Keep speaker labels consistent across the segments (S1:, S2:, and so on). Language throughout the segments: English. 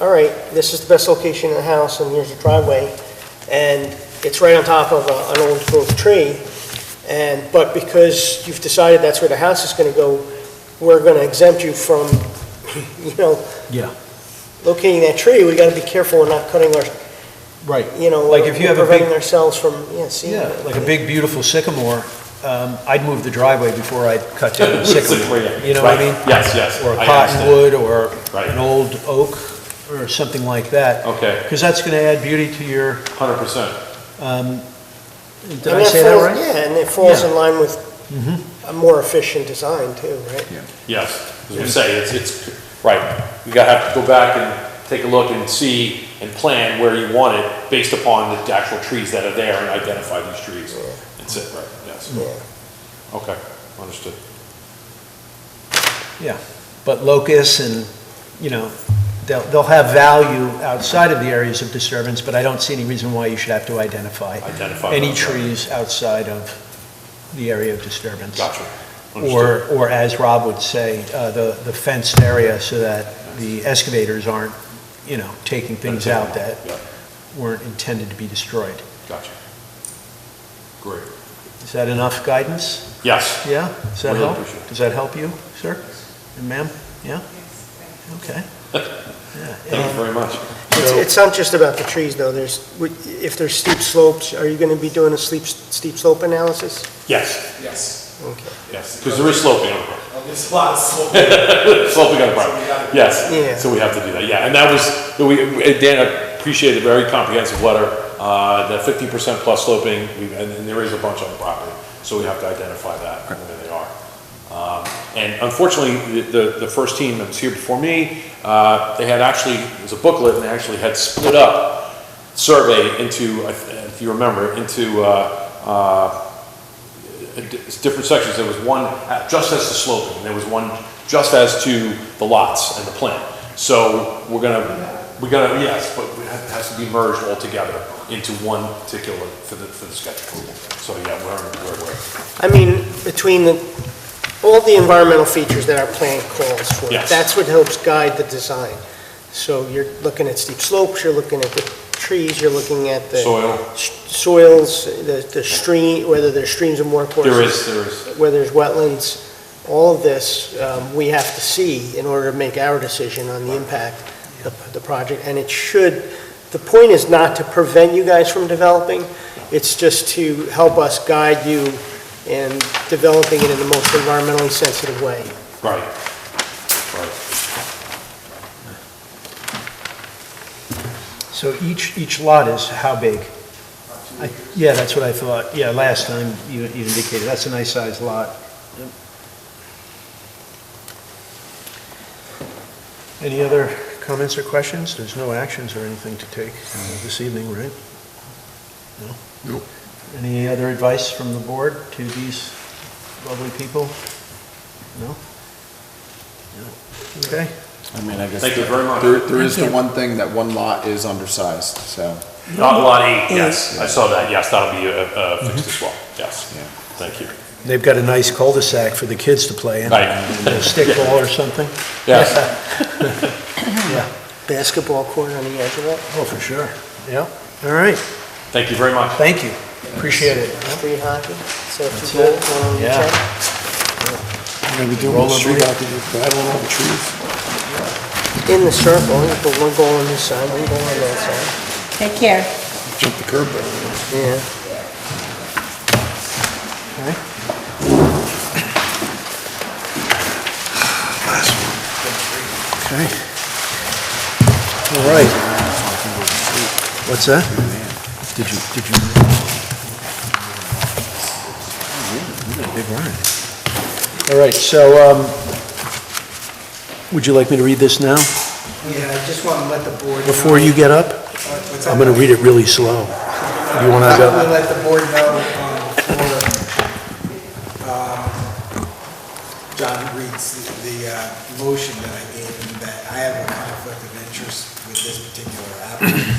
S1: all right, this is the best location in the house, and here's the driveway, and it's right on top of a- an old growth tree, and, but because you've decided that's where the house is gonna go, we're gonna exempt you from, you know,
S2: Yeah.
S1: locating that tree, we gotta be careful we're not cutting our,
S2: Right.
S1: you know,
S2: Like if you have a big-
S1: preventing ourselves from, yeah, seeing.
S2: Yeah,
S1: it.
S2: like a big, beautiful sycamore, um, I'd move the driveway before I'd cut down the sycamore. You know what I mean?
S3: Yes, yes.
S2: Or a
S3: I understand.
S2: cottonwood, or
S3: Right.
S2: an old oak, or something like that.
S3: Okay.
S2: Because that's going to add beauty to your,
S3: Hundred percent.
S2: um, did
S1: And
S2: I say that
S1: falls-
S2: right?
S1: Yeah, and it falls
S2: Yeah. Mm-hmm.
S1: in line with a more efficient design too, right?
S3: Yes, as you say, it's, it's, right. You gotta have to go back and take a look and see and plan where you want it based upon the actual trees that are there and identify these trees. That's it, right, yes. Okay, understood.
S2: Yeah, but locusts and, you know, they'll, they'll have value outside of the areas of disturbance, but I don't see any reason why you should have to identify
S3: Identify.
S2: any
S3: those.
S2: trees outside of the area of disturbance.
S3: Gotcha. Understood.
S2: Or, or as Rob would say, uh, the, the fenced area so that the excavators aren't, you know, taking things out that
S3: Yeah,
S2: weren't intended to be destroyed.
S3: gotcha. Great.
S2: Is that enough guidance?
S3: Yes,
S2: Yeah? Does that
S3: Really
S2: help?
S3: appreciate it.
S2: Does that help you, sir? And ma'am? Yeah? Okay.
S3: thank you very much.
S1: It's,
S2: So-
S1: it's not just about the trees, though, there's, would- if there's steep slopes, are you gonna be doing a steep, steep slope analysis?
S3: Yes,
S4: Yes,
S1: Okay.
S3: yes, because there is sloping on the property.
S4: Well, there's a lot of slow.
S3: Sloping on the property,
S1: Yeah.
S3: yes. So we have to do that, yeah. And that was, we, we- Dan, I appreciate the very comprehensive letter, uh, the fifty percent plus sloping, we- and and there is a bunch on the property, so we have to identify that, and where they are. Um, And unfortunately, the- the, the first team that was here before me, uh, they had actually, it was a booklet, and they actually had split up survey into, I th- if you remember, into uh, uh, it's different sections, there was one uh, just as to sloping, and there was one just as to the lots and the plan. So we're gonna, we're gonna, yes, but it has- has to be merged all together into one particular for the, for the sketch approval. So yeah, we're, we're, we're,
S1: I mean, between the, all the environmental features that our plan calls for.
S3: Yes.
S1: That's what helps guide the design. So you're looking at steep slopes, you're looking at the trees, you're looking at the
S3: soil,
S1: s- soils, the, the stream, whether there's streams and water courses.
S3: there is, there is,
S1: where there's wetlands, all of this, um, we have to see in order to make our decision on the impact of the project. And it should, the point is not to prevent you guys from developing, it's just to help us guide you in developing it in the most environmentally sensitive way.
S3: right, right,
S2: So each, each lot is how big? I- Yeah, that's what I thought. Yeah, last time you you indicated, that's a nice sized lot. Any other comments or questions? There's no actions or anything to take uh, this evening, right? No?
S5: Nope.
S2: Any other advice from the board to these lovely people? No? No. Okay.
S5: I mean, I guess.
S3: thank you very much.
S5: There, there is the one thing that one lot is undersized, so,
S3: Not lot eight, yes, I saw that, yes, that'll be, uh, uh, fixed as well, yes,
S5: Mm-hmm. yeah.
S3: thank you.
S2: They've got a nice cul-de-sac for the kids to play in.
S3: Right,
S2: Stickball or something?
S3: yes.
S2: Yeah.
S1: Basketball court on the edge of it,
S2: Oh, for sure. Yeah. All right.
S3: Thank you very much.
S2: Thank you. Appreciate it.
S1: street hockey, so if you go,
S2: That's
S1: um,
S2: Yeah.
S1: check.
S5: You're gonna be doing
S2: Roll street over.
S5: battling all the trees?
S1: in the circle, you put one goal on this side, one goal on that side.
S6: Take care.
S5: Jump the curb there.
S1: Yeah.
S2: Okay. All right. What's that? Did you, did you? Big one. All right, so, um, would you like me to read this now,
S7: Yeah, I just want to let the board. know-
S2: before you get up?
S7: What's that?
S2: I'm gonna read it really slow. You wanna
S7: I'm
S2: go?
S7: gonna let the board know um, before um, John reads the- the uh, motion that I gave him, that I have a conflict of interest with this particular applicant,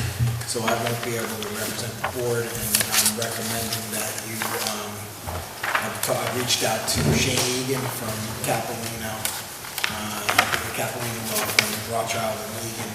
S7: so I won't be able to represent the board, and I'm recommending that you, um, I've ta- I've reached out to Shane Egan from Capelino, uh, Capelino Law Firm, Rothschild and Egan,